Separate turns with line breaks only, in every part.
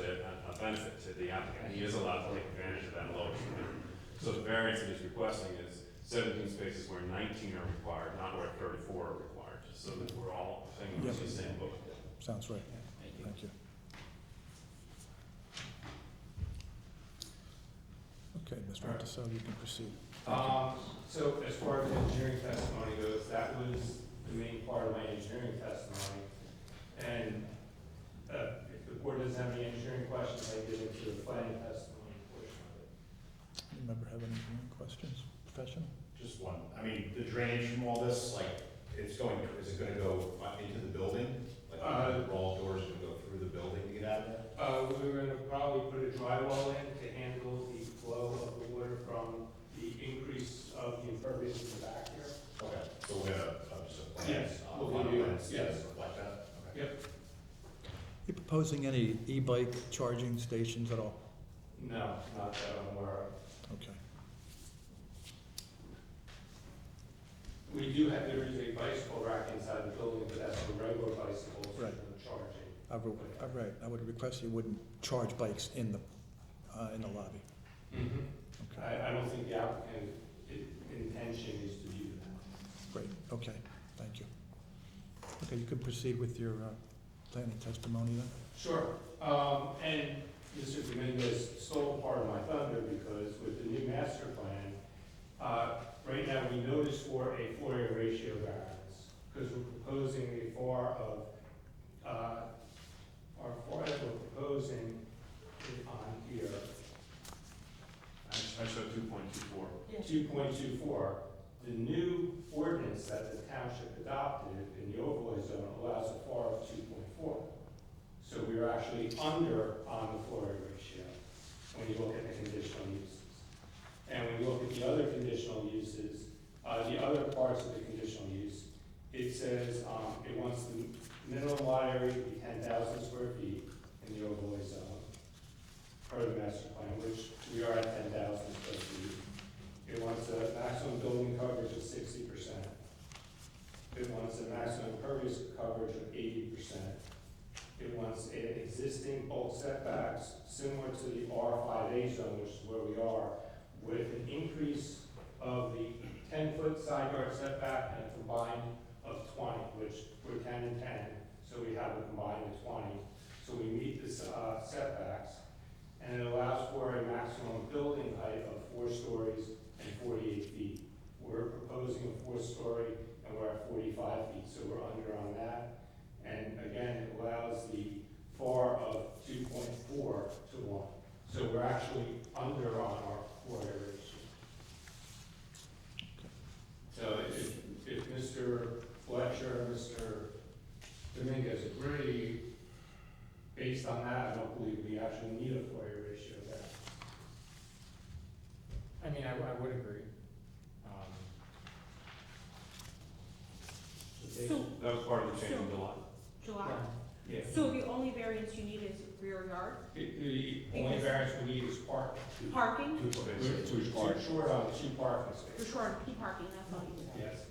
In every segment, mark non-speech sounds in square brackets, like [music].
a, a benefit to the applicant, he is allowed to take advantage of that lower floor. So the variance that he's requesting is seventeen spaces where nineteen are required, not where thirty-four are required, just so that we're all singing from the same book.
Sounds right. Thank you. Okay, Mr. Monticello, you can proceed.
Um, so as far as the engineering testimony goes, that was the main part of my engineering testimony. And, uh, if the board doesn't have any engineering questions, I get into the planning testimony portion of it.
You member have any questions, professional?
Just one, I mean, the drainage from all this, like, it's going, is it gonna go up into the building? Like,
Uh,
the roll doors gonna go through the building to get out of there?
Uh, we were gonna probably put a drywall in to handle the flow of the water from the increase of the impervious in the back here.
Okay, so we're gonna, uh, just a plan.
Yes,
uh,
we'll
final
do,
plans,
yes.
Like that? Okay.
You proposing any e-bike charging stations at all?
No, not that I'm aware of.
Okay.
We do have, there is a bicycle rack inside the building, but that's for regular bicycles for
Right.
charging.
I would, all right, I would request you wouldn't charge bikes in the, uh, in the lobby.
Mm-hmm.
Okay,
I, I don't think the applicant, i- intention is to do that.
great, okay, thank you. Okay, you can proceed with your, uh, planning testimony then.
Sure, um, and Mr. Dominguez stole part of my thunder because with the new master plan, uh, right now we notice for a four-year ratio variance, because we're proposing a FAR of, uh, our FAR that we're proposing is on here,
I showed two point two four.
two point two four, the new ordinance that the township adopted in the overlay zone allows a FAR of two point four. So we are actually under on the floor area ratio when you look at the conditional uses. And when you look at the other conditional uses, uh, the other parts of the conditional use, it says, um, it wants the minimum lot area to be ten thousand square feet in the overlay zone, per the master plan, which we are at ten thousand square feet. It wants a maximum building coverage of sixty percent. It wants a maximum impervious coverage of eighty percent. It wants a- existing bulk setbacks similar to the R five A zone, which is where we are, with an increase of the ten-foot side yard setback and a combined of twenty, which we're ten and ten, so we have a combined of twenty. So we meet the s- uh, setbacks, and it allows for a maximum building height of four stories and forty-eight feet. We're proposing a four-story, and we're at forty-five feet, so we're under on that. And again, it allows the FAR of two point four to one, so we're actually under on our floor area ratio. So if, if Mr. Fletcher, and Mr. Dominguez agree, based on that, I don't believe we actually need a FOIA ratio there.
I mean, I, I would agree. Um,
So,
That was part of the change in July.
July,
Yeah.
so the only variance you need is rear yard
The, the only variance we need is park.
parking,
Two
We're
places.
too short on two parking
for
spaces.
sure, on P parking, that's all you need.
Yes.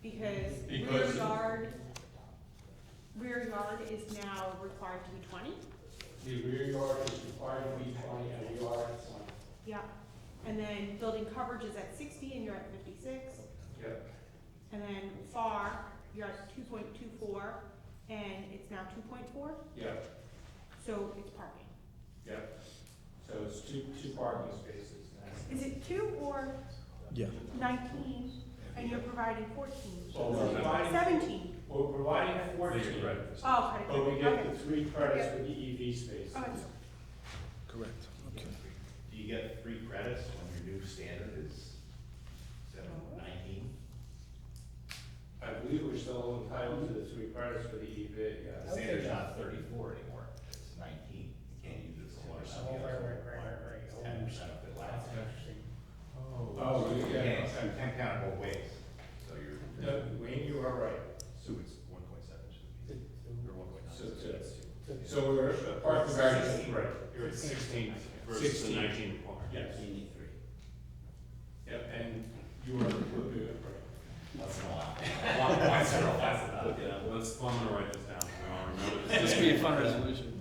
Because rear
Because-
yard, rear yard is now required to be twenty,
The rear yard is required to be twenty and the yard is twenty.
yeah. And then building coverage is at sixty and you're at fifty-six,
Yep.
and then FAR, you're at two point two four, and it's now two point four,
Yep,
so it's parking.
yep. So it's two, two parking spaces now.
Is it two or
Yeah,
nineteen, and you're providing fourteen?
Well, Oh, we're providing,
Seventeen,
we're providing fourteen.
oh, credit,
But we get
okay,
the three credits for the E EV space.
okay.
correct, okay.
Do you get three credits when your new standard is seven nineteen?
I believe we're still entitled to the three credits for the E EV,
The
yes.
standard's not thirty-four anymore, it's nineteen, you can't use it for something else. Ten percent of it lasts.
Oh,
You
yeah,
can't,
okay.
you can't count it both ways, so you're.
No, Wayne, you are right.
So it's one point seven should be, or one point
So it's- So we're, uh, park the variance, right, you're at sixteen.
Versus the
16.
nineteen required.
Yes. Yep, and you are completely right.
That's a lot.
[laughs]
One point zero, that's it. Yeah, let's, I'm gonna write this down, so we all remember. this.
[laughs]
This would be a fun resolution.